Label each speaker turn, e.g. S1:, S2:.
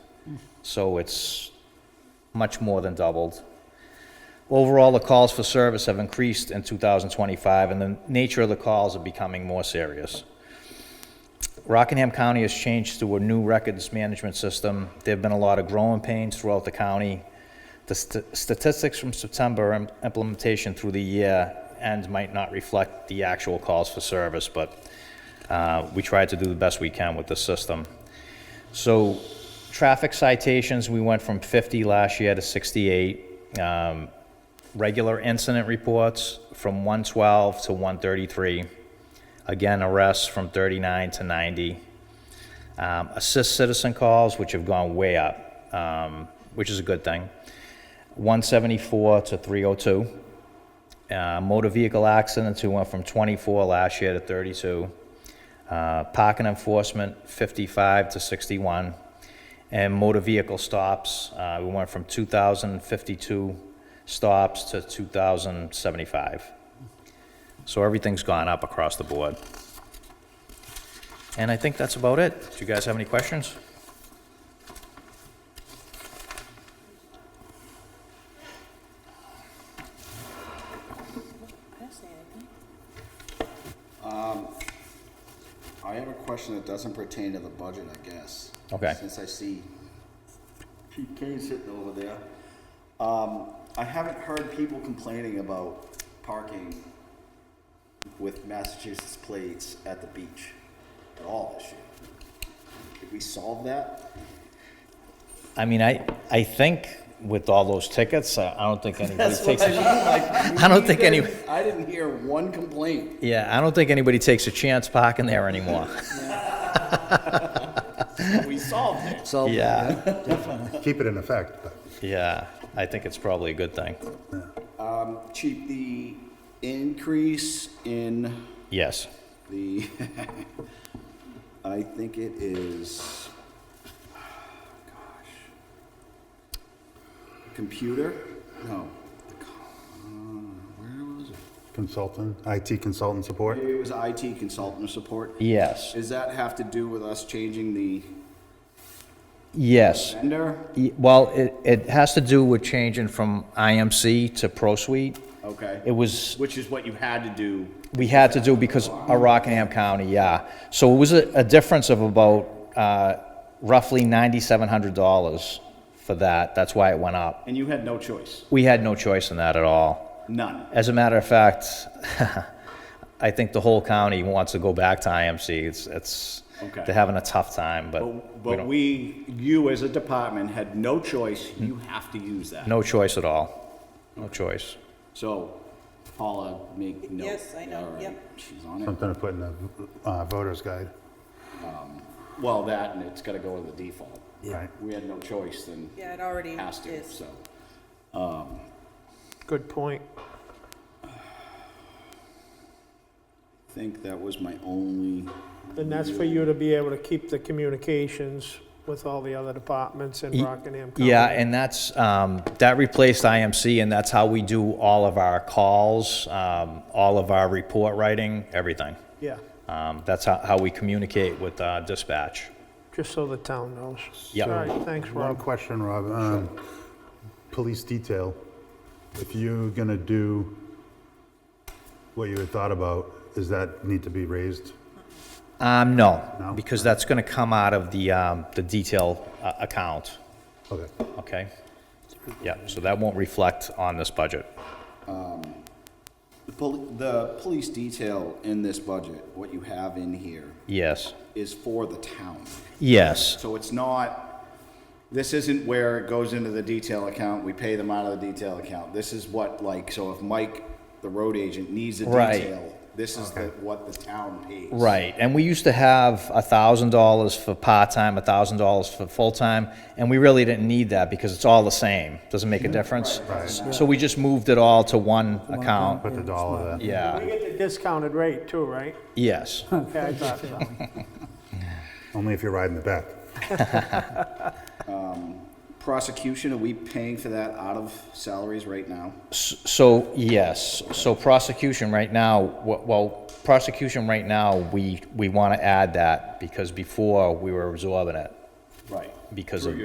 S1: So it's much more than doubled. Overall, the calls for service have increased in 2025, and the nature of the calls are becoming more serious. Rockingham County has changed to a new records management system. There have been a lot of growing pains throughout the county. The st- statistics from September im- implementation through the year end might not reflect the actual calls for service, but uh, we try to do the best we can with the system. So, traffic citations, we went from 50 last year to 68. Um, Regular incident reports from 112 to 133. Again, arrests from 39 to 90. Um, Assist citizen calls, which have gone way up, um, which is a good thing. 174 to 302. Uh, Motor vehicle accidents, we went from 24 last year to 32. Uh, Parking enforcement, 55 to 61. And motor vehicle stops, uh, we went from 2,052 stops to 2,075. So everything's gone up across the board. And I think that's about it. Do you guys have any questions?
S2: I have a question that doesn't pertain to the budget, I guess.
S1: Okay.
S2: Since I see Pete Kane sitting over there. Um, I haven't heard people complaining about parking with Massachusetts plates at the beach at all this year. Did we solve that?
S1: I mean, I, I think with all those tickets, I I don't think anybody takes, a-
S2: I
S1: I don't think any-
S2: I didn't hear one complaint.
S1: yeah, I don't think anybody takes a chance parking there anymore.
S2: We solved it.
S3: So,
S1: Yeah,
S4: keep it in effect, but
S1: yeah, I think it's probably a good thing.
S2: Chief, the increase in
S1: Yes,
S2: The, I think it is, gosh, computer? No. the co- uh, Where was it?
S4: consultant, IT consultant support.
S2: Maybe It was IT consultant support.
S1: yes,
S2: Does that have to do with us changing the
S1: yes.
S2: vendor?
S1: Y- Well, it, it has to do with changing from IMC to Pro Suite.
S2: Okay.
S1: It was,
S2: Which is what you had to do.
S1: we had to do because of Rockingham County, yeah. So it was a, a difference of about uh, roughly $9,700 for that. That's why it went up.
S2: And you had no choice.
S1: We had no choice in that at all.
S2: None.
S1: As a matter of fact, I think the whole county wants to go back to IMC. It's, it's,
S2: Okay.
S1: they're having a tough time, but we
S2: But but
S1: don't- Hmm.
S2: we, you as a department had no choice. You have to use that.
S1: no choice at all. No choice.
S2: So Paula, make note.
S5: Yes, I know,
S2: All right,
S5: yep.
S2: She's on it.
S4: Something to put in the uh, voter's guide,
S2: Well, that, and it's gotta go in the default.
S4: right?
S2: We had no choice then,
S5: Yeah, it already
S2: has to,
S5: is.
S2: so.
S6: Good point.
S2: I think that was my only,
S6: And that's for you to be able to keep the communications with all the other departments in
S1: Ye-
S6: Rockingham County.
S1: Yeah, and that's, um, that replaced IMC, and that's how we do all of our calls, um, all of our report writing, everything.
S6: Yeah,
S1: Um, That's how, how we communicate with uh, dispatch.
S6: just so the town knows.
S1: Yeah.
S6: All right, thanks,
S4: One
S6: Rob.
S4: question, Rob. um, Police detail, if you're gonna do what you had thought about, does that need to be raised?
S1: Um, no,
S4: No?
S1: because that's gonna come out of the, um, the detail uh, account,
S4: Okay.
S1: okay? Yeah, so that won't reflect on this budget.
S2: the pol- the police detail in this budget, what you have in here,
S1: Yes,
S2: is for the town.
S1: yes,
S2: So it's not, this isn't where it goes into the detail account, we pay them out of the detail account. This is what, like, so if Mike, the road agent, needs a
S1: Right.
S2: detail, this is the, what the town pays.
S1: right. And we used to have a thousand dollars for part-time, a thousand dollars for full-time, and we really didn't need that because it's all the same. Doesn't make a difference. So we just moved it all to one account.
S4: Put the dollar there.
S6: We
S1: Yeah,
S6: get the discounted rate too, right?
S1: yes.
S6: Okay, I thought so.
S4: Only if you're riding the back.
S2: Prosecution, are we paying for that out of salaries right now?
S1: So, yes, so prosecution right now, wh- well, prosecution right now, we, we want to add that because before we were absorbing it
S2: Right.
S1: because of